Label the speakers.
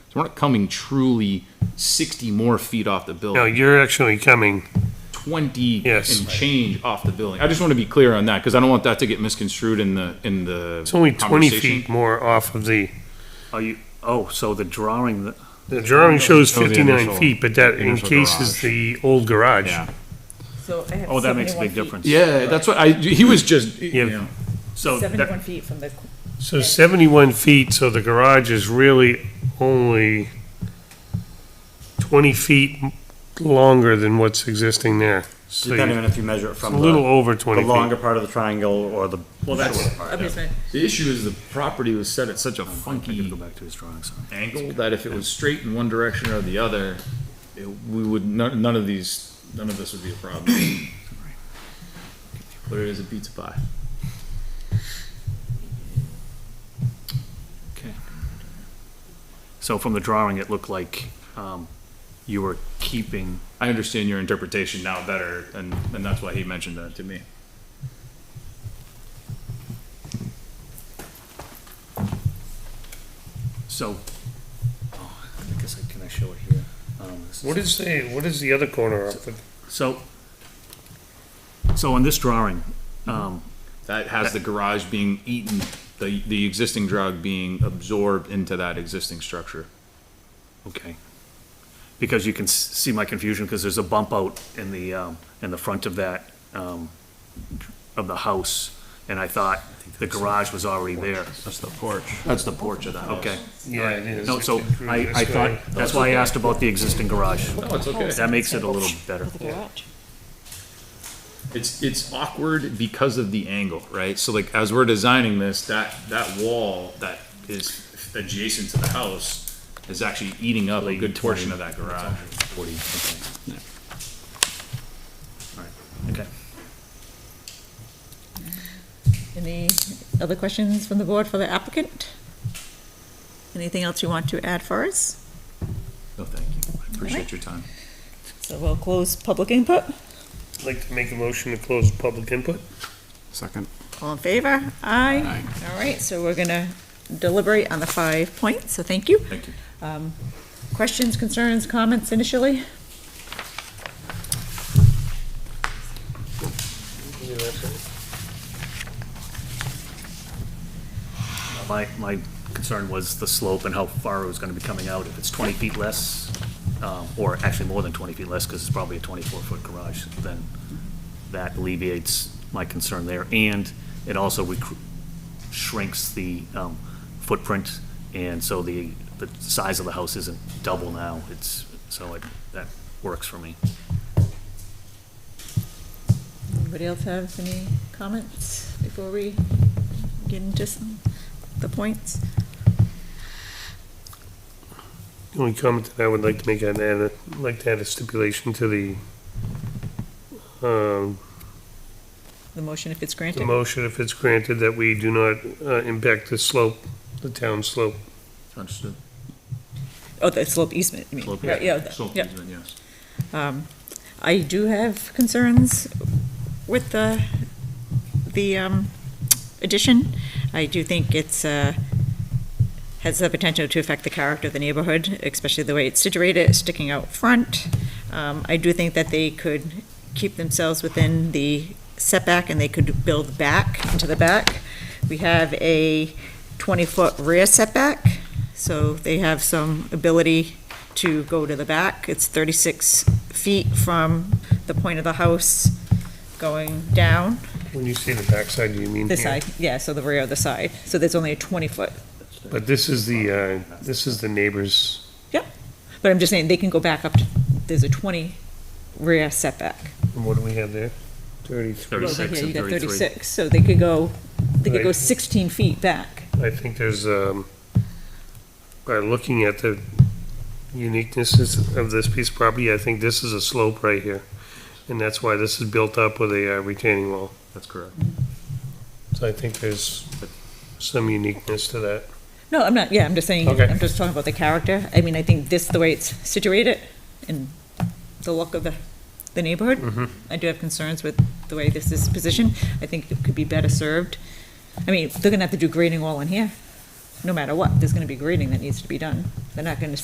Speaker 1: So we're not coming truly 60 more feet off the building.
Speaker 2: No, you're actually coming,
Speaker 1: 20
Speaker 2: Yes.
Speaker 1: and change off the building. I just want to be clear on that because I don't want that to get misconstrued in the, in the.
Speaker 2: it's only 20
Speaker 1: conversation.
Speaker 2: feet more off of the,
Speaker 3: Are you, oh, so the drawing, that-
Speaker 2: the drawing shows
Speaker 1: Show the
Speaker 2: 59
Speaker 1: initial-
Speaker 2: feet, but that
Speaker 1: the initial
Speaker 2: encases the old garage.
Speaker 1: Yeah.
Speaker 4: So I have
Speaker 3: oh, that makes a
Speaker 4: 71
Speaker 3: big
Speaker 4: feet-
Speaker 3: difference.
Speaker 1: Yeah, that's what I, he was just,
Speaker 2: Yeah.
Speaker 1: you know,
Speaker 3: So that,
Speaker 4: Seventy-one feet from the, qu-
Speaker 2: So 71 feet, so the garage is really only 20 feet m- longer than what's existing there. So
Speaker 5: Depending
Speaker 2: you-
Speaker 5: on if you measure it
Speaker 2: it's a
Speaker 5: from
Speaker 2: little
Speaker 5: the,
Speaker 2: over
Speaker 5: the
Speaker 2: 20 feet.
Speaker 5: longer part of the triangle or the
Speaker 3: well, that's,
Speaker 4: I'm just saying,
Speaker 1: the issue is the property was set at such a
Speaker 3: I
Speaker 1: funky
Speaker 3: could go back to his drawing, sorry.
Speaker 1: angle that if it was straight in one direction or the other, it- we would, none none of these, none of this would be a problem. But it is a pizza pie.
Speaker 3: So from the drawing, it looked like, um, you were keeping,
Speaker 1: I understand your interpretation now better, and, and that's why he mentioned that to me.
Speaker 3: so, oh, I guess I, can I show it here? Um, this
Speaker 2: What is the, what is the other corner of the
Speaker 3: So, so on this drawing, um,
Speaker 1: That has the garage being eaten, the, the existing drug being absorbed into that existing structure.
Speaker 3: okay. Because you can s- see my confusion, because there's a bump out in the, um, in the front of that, um, of the house, and I thought the garage was already there.
Speaker 5: That's the porch.
Speaker 3: That's the porch of the house. Okay.
Speaker 2: Yeah, it is.
Speaker 3: No, so
Speaker 2: It's through
Speaker 3: I,
Speaker 2: this
Speaker 3: I
Speaker 2: guy.
Speaker 3: thought, that's why I asked about the existing garage.
Speaker 1: No, Oh, it's okay.
Speaker 3: That makes it a little better.
Speaker 6: With the garage.
Speaker 1: It's, it's awkward because of the angle, right? So like, as we're designing this, that, that wall that is adjacent to the house is actually eating up a good portion of that garage.
Speaker 3: Forty, okay. All right, okay.
Speaker 4: any other questions from the board for the applicant? Anything else you want to add for us?
Speaker 1: No, thank you. I appreciate your time.
Speaker 4: So we'll close public input.
Speaker 2: I'd like to make a motion to close public input.
Speaker 5: Second.
Speaker 4: All in favor? Aye. All right, so we're gonna deliberate on the five points, so thank you.
Speaker 1: Thank you.
Speaker 4: Um, Questions, concerns, comments initially?
Speaker 3: My, my concern was the slope and how far it was gonna be coming out, if it's twenty feet less, um, or actually more than twenty feet less, because it's probably a twenty-four foot garage, then that alleviates my concern there, and it also recr- shrinks the, um, footprint, and so the, the size of the house isn't double now, it's, so it, that works for me.
Speaker 4: Anybody else have any comments before we get into some, the points?
Speaker 2: The only comment that I would like to make, I'd add, a- I'd like to add a stipulation to the, um,
Speaker 4: The motion, if it's
Speaker 2: the
Speaker 4: granted?
Speaker 2: motion, if it's granted, that we do not uh, impact the slope, the town slope.
Speaker 1: Understood.
Speaker 4: Oh, the slope easement, I mean.
Speaker 1: Slope
Speaker 4: Right,
Speaker 1: easement.
Speaker 4: yeah, the-
Speaker 1: Slope
Speaker 4: yeah.
Speaker 1: easement, yes.
Speaker 4: Um, I do have concerns with the, the um, addition. I do think it's, uh, has the potential to affect the character of the neighborhood, especially the way it's situated, sticking out front. Um, I do think that they could keep themselves within the setback and they could build back into the back. We have a 20-foot rear setback, so they have some ability to go to the back. It's 36 feet from the point of the house going down
Speaker 2: When you say the backside, do you mean here?
Speaker 4: this side, yeah, so the rear of the side. So there's only a 20-foot.
Speaker 2: But this is the, uh, this is the neighbor's,
Speaker 4: But I'm just saying, they can go back up, to there's a 20 rear setback.
Speaker 2: and what do we have there? Thirty-three.
Speaker 4: Well, over
Speaker 3: 36
Speaker 4: here, you
Speaker 3: and
Speaker 4: got
Speaker 3: 33.
Speaker 4: 36, so they could go, they could go
Speaker 2: Right.
Speaker 4: 16 feet back.
Speaker 2: I think there's, um, by looking at the uniquenesses of this piece of property, I think this is a slope right here. And that's why this is built up with a uh, retaining wall.
Speaker 1: That's correct.
Speaker 2: So I think there's some uniqueness to that.
Speaker 4: No, I'm not, yeah, I'm just saying,
Speaker 2: Okay.
Speaker 4: I'm just talking about the character. I mean, I think this, the way it's situated and the look of the, the neighborhood. I do have concerns with the way this is positioned. I think it could be better served. I mean, they're gonna have to do grading all in here, no matter what. There's gonna be grading that needs to be done. They're not gonna